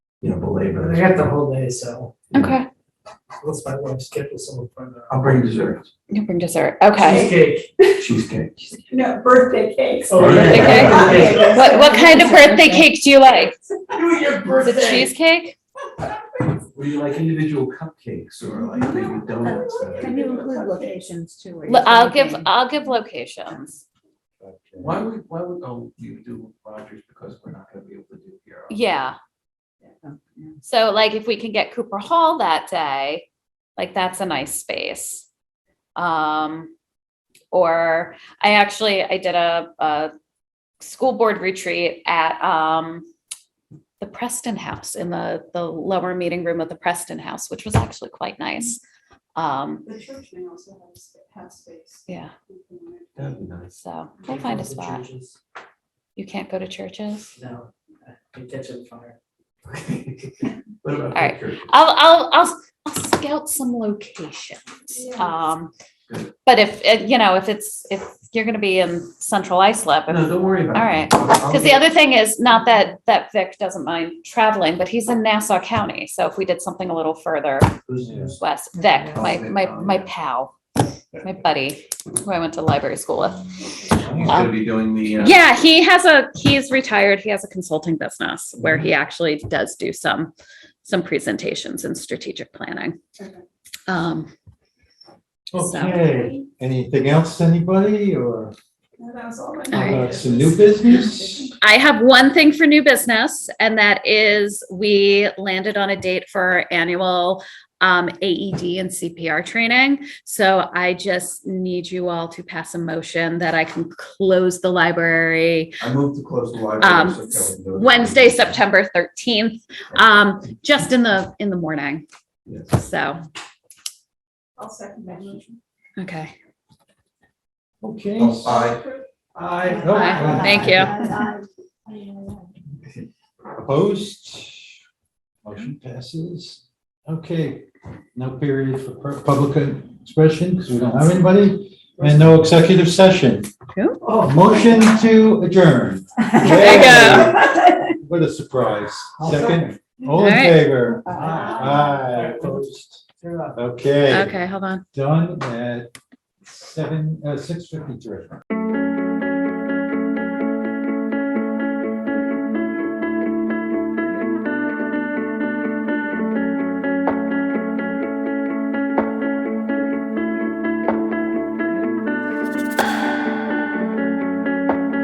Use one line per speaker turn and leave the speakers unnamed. you know, belabor.
I
it.
got the whole day, so
Okay,
let's my wife schedule someone for the.
I'll bring dessert,
you bring dessert. Okay.
Cheesecake.
cheesecake.
No, birthday cakes.
Oh,
Birthday
yeah.
cake?
Okay.
What what kind of birthday cake do you like?
Do your
Is it cheesecake?
Would you like individual cupcakes or like maybe donuts?
Can you include locations too? where
L-
you're
I'll give
thinking?
I'll give locations.
Why would, why would, oh, you do Rogers because we're not gonna be able to do here.
Yeah.
Yeah.
So like if we can get Cooper Hall that day, like that's a nice space. Um, or I actually, I did a, a school board retreat at, um, the Preston House in the, the lower meeting room of the Preston House, which was actually quite nice. Um,
The church may also have, spa- have space.
yeah,
That'd be nice.
so we'll find a spot. You can't go to churches?
No, I can catch on fire.
What about?
All right.
pictures?
I'll, I'll, I'll, I'll scout some locations. Um,
Good.
but if, uh, you know, if it's, if you're gonna be in central Islip,
No, don't worry about it.
All right.
I'll- I'll
because the
get-
other thing is, not that, that Vic doesn't mind traveling, but he's in Nassau County, so if we did something a little further
Who's news?
west, Vic,
Oh,
my,
Vic,
my,
oh,
my
yeah.
pal, my buddy, who I went to library school with.
He's gonna be doing the. uh,
Yeah, he has a, he's retired, he has a consulting business where he actually does do some, some presentations in strategic planning. Um,
Okay, anything else, anybody, or
No, that was all I
All right.
uh, some new business?
I have one thing for new business, and that is we landed on a date for our annual um, AED and CPR training. So I just need you all to pass a motion that I can close the library
I moved to close the library.
Um,
so Kevin knows.
Wednesday, September thirteenth, um, just in the in the morning.
Yes.
So
I'll second that motion.
okay,
Okay.
Oh, aye.
I.
Aye. Thank you.
Opposed? Motion passes. Okay, no period for pub- public expression, because we don't have anybody, and no executive session.
Cool.
Oh, motion to adjourn.
There
What a surprise.
I'll
Second, all in
Alright.
favor?
Aye.
Aye, opposed.
They're up.
Okay,
okay, hold on.
done at seven, uh, six fifty-three.